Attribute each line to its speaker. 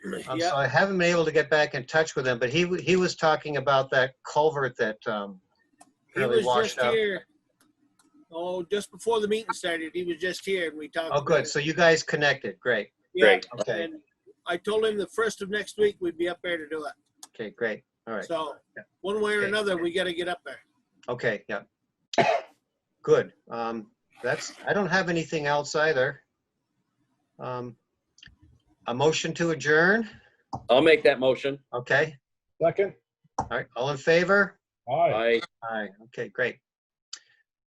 Speaker 1: Um,
Speaker 2: Yeah.
Speaker 1: So I haven't been able to get back in touch with him, but he, w- he was talking about that culvert that, um,
Speaker 2: He
Speaker 1: really
Speaker 2: was
Speaker 1: washed
Speaker 2: just
Speaker 1: up.
Speaker 2: here. Oh, just before the meeting started, he was just here and we talked.
Speaker 1: Oh,
Speaker 2: about
Speaker 1: good.
Speaker 2: it.
Speaker 1: So you guys connected. Great.
Speaker 2: Yeah,
Speaker 3: Great.
Speaker 1: Okay.
Speaker 2: and I told him the first of next week we'd be up there to do it.
Speaker 1: Okay, great. All right.
Speaker 2: So, one way or
Speaker 1: Okay.
Speaker 2: another, we gotta get up there.
Speaker 1: Okay, yeah. Good. Um, that's, I don't have anything else either. Um, a motion to adjourn?
Speaker 3: I'll make that motion.
Speaker 1: Okay,
Speaker 4: Second?
Speaker 1: all right, all in favor?
Speaker 4: Aye.
Speaker 3: I,
Speaker 1: Aye, okay, great.